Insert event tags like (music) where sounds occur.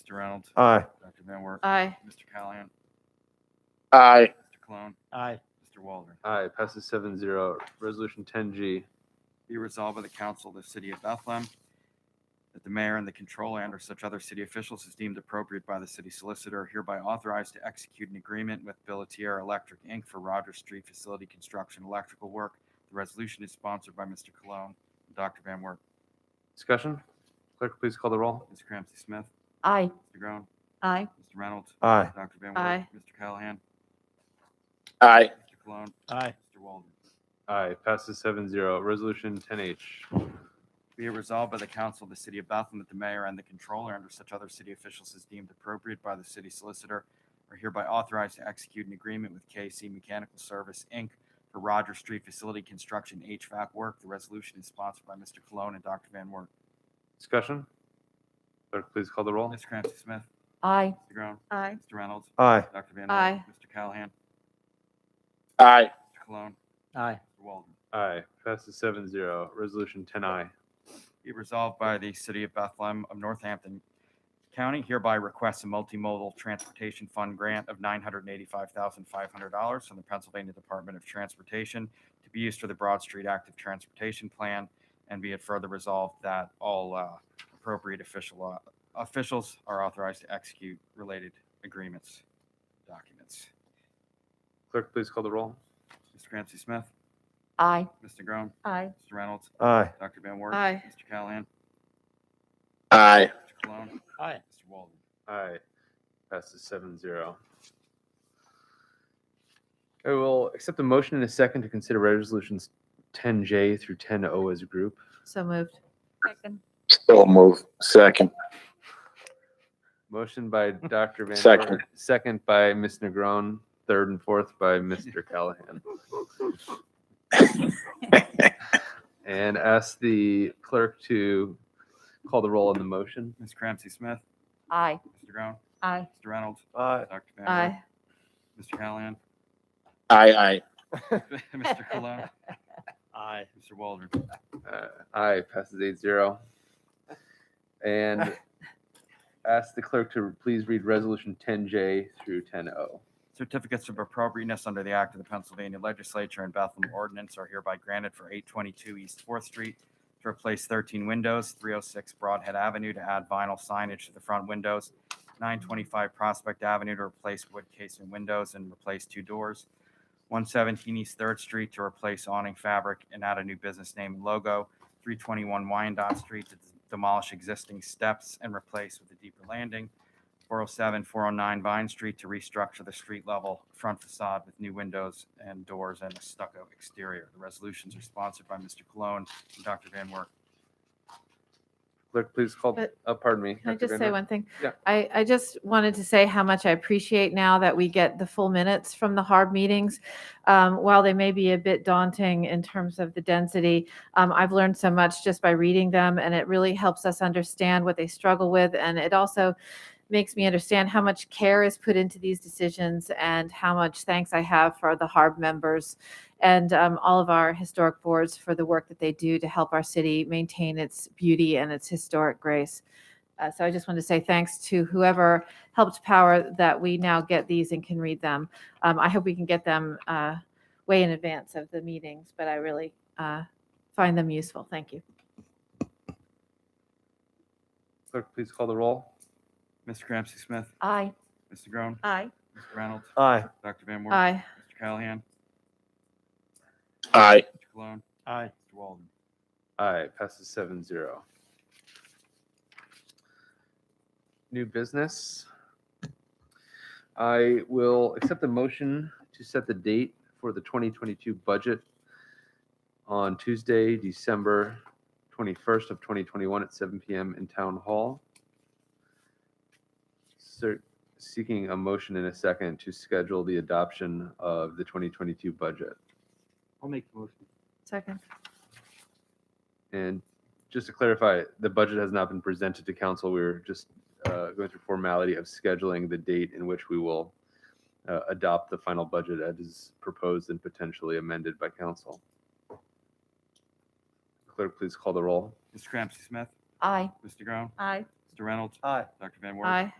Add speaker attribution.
Speaker 1: Mr. Reynolds,
Speaker 2: Aye.
Speaker 1: Dr. Van Wert,
Speaker 3: Aye.
Speaker 1: Mr. Callahan,
Speaker 4: Aye.
Speaker 1: Mr. Cologne,
Speaker 5: Aye.
Speaker 1: Mr. Waldron.
Speaker 6: Aye, passes seven zero. Resolution ten G.
Speaker 1: Be resolved by the council of the city of Bethlehem that the mayor and the controller and or such other city officials as deemed appropriate by the city solicitor are hereby authorized to execute an agreement with Billatier Electric, Inc. for Rogers Street Facility Construction Electrical Work. The resolution is sponsored by Mr. Cologne and Dr. Van Wert.
Speaker 6: Discussion? Clerk, please call the roll.
Speaker 1: Ms. Ramsey Smith,
Speaker 3: Aye.
Speaker 1: Mr. Groan,
Speaker 3: Aye.
Speaker 1: Mr. Reynolds,
Speaker 2: Aye.
Speaker 1: Dr. Van Wert,
Speaker 3: Aye.
Speaker 1: Mr. Callahan,
Speaker 4: Aye.
Speaker 1: Mr. Cologne,
Speaker 5: Aye.
Speaker 1: Mr. Waldron.
Speaker 6: Aye, passes seven zero. Resolution ten H.
Speaker 1: Be it resolved by the council of the city of Bethlehem that the mayor and the controller under such other city officials as deemed appropriate by the city solicitor are hereby authorized to execute an agreement with KC Mechanical Service, Inc. for Rogers Street Facility Construction HVAC work. The resolution is sponsored by Mr. Cologne and Dr. Van Wert.
Speaker 6: Discussion? Clerk, please call the roll.
Speaker 1: Ms. Ramsey Smith,
Speaker 3: Aye.
Speaker 1: Mr. Groan,
Speaker 3: Aye.
Speaker 1: Mr. Reynolds,
Speaker 2: Aye.
Speaker 1: Dr. Van Wert.
Speaker 3: Aye.
Speaker 1: Mr. Callahan,
Speaker 4: Aye.
Speaker 1: Mr. Cologne,
Speaker 5: Aye.
Speaker 1: Mr. Waldron.
Speaker 6: Aye, passes seven zero. Resolution ten I.
Speaker 1: Be it resolved by the City of Bethlehem of Northampton County hereby requests a multimodal transportation fund grant of $985,500 from the Pennsylvania Department of Transportation to be used for the Broad Street Active Transportation Plan. And be it further resolved that all uh, appropriate official, uh, officials are authorized to execute related agreements, documents.
Speaker 6: Clerk, please call the roll.
Speaker 1: Mr. Ramsey Smith,
Speaker 3: Aye.
Speaker 1: Mr. Groan,
Speaker 3: Aye.
Speaker 1: Mr. Reynolds,
Speaker 2: Aye.
Speaker 1: Dr. Van Wert.
Speaker 3: Aye.
Speaker 1: Mr. Callahan,
Speaker 4: Aye.
Speaker 1: Mr. Cologne,
Speaker 5: Aye.
Speaker 1: Mr. Walden.
Speaker 6: Aye. Passes seven zero. I will accept a motion in a second to consider resolutions ten J through ten O as a group.
Speaker 3: So moved. Second.
Speaker 4: So move. Second.
Speaker 6: Motion by Dr. Van
Speaker 4: Second.
Speaker 6: Dorn, second by Ms. Negron, third and fourth by Mr. Callahan. And ask the clerk to call the roll on the motion.
Speaker 1: Ms. Ramsey Smith,
Speaker 3: Aye.
Speaker 1: Mr. Groan,
Speaker 3: Aye.
Speaker 1: Mr. Reynolds,
Speaker 2: Aye.
Speaker 1: Dr. Van Wert,
Speaker 3: Aye.
Speaker 1: Mr. Callahan, (laughs)
Speaker 4: Aye. Aye.
Speaker 1: Mr. Cologne,
Speaker 5: Aye.
Speaker 1: Mr. Waldron.
Speaker 6: Uh, Aye, passes eight zero. And ask the clerk to please read resolution ten J through ten O.
Speaker 1: Certificates of appropriateness under the Act of the Pennsylvania Legislature and Bethlehem Ordinance are hereby granted for 822 East Fourth Street to replace 13 windows, 306 Broadhead Avenue to add vinyl signage to the front windows, 925 Prospect Avenue to replace wood casing windows and replace two doors, 117 East Third Street to replace awning fabric and add a new business name and logo, 321 Wyandotte Street to demolish existing steps and replace with a deeper landing, 407, 409 Vine Street to restructure the street level front facade with new windows and doors and a stucco exterior. The resolutions are sponsored by Mr. Cologne and Dr. Van Wert.
Speaker 6: Clerk, please call,
Speaker 3: But-
Speaker 6: uh, pardon me.
Speaker 3: Can I
Speaker 6: Dr.
Speaker 3: just
Speaker 6: Van
Speaker 3: say
Speaker 6: Dorn.
Speaker 3: one thing?
Speaker 6: Yeah.
Speaker 3: I, I just wanted to say how much I appreciate now that we get the full minutes from the HARB meetings. Um, While they may be a bit daunting in terms of the density, um, I've learned so much just by reading them, and it really helps us understand what they struggle with. And it also makes me understand how much care is put into these decisions and how much thanks I have for the HARB members and um, all of our historic boards for the work that they do to help our city maintain its beauty and its historic grace. Uh, so I just want to say thanks to whoever helped power that we now get these and can read them. Um, I hope we can get them uh, way in advance of the meetings, but I really uh, find them useful. Thank you.
Speaker 6: Clerk, please call the roll.
Speaker 1: Mr. Ramsey Smith,
Speaker 3: Aye.
Speaker 1: Mr. Groan,
Speaker 3: Aye.
Speaker 1: Mr. Reynolds,
Speaker 2: Aye.
Speaker 1: Dr. Van Wert,
Speaker 3: Aye.
Speaker 1: Mr. Callahan,
Speaker 4: Aye.
Speaker 1: Mr. Cologne,
Speaker 5: Aye.
Speaker 1: Mr. Walden.
Speaker 6: Aye, passes seven zero. New business. I will accept the motion to set the date for the 2022 budget on Tuesday, December 21st of 2021 at 7 PM in Town Hall. Ser- Seeking a motion in a second to schedule the adoption of the 2022 budget.
Speaker 5: I'll make the motion.
Speaker 3: Second.
Speaker 6: And just to clarify, the budget has not been presented to council. We We're just uh, going through formality of scheduling the date in which we will uh, adopt the final budget as is proposed and potentially amended by council. Clerk, please call the roll.
Speaker 1: Mr. Ramsey Smith,
Speaker 3: Aye.
Speaker 1: Mr. Groan,
Speaker 3: Aye.
Speaker 1: Mr. Reynolds,
Speaker 2: Aye.
Speaker 1: Dr. Van Wert.
Speaker 3: Aye.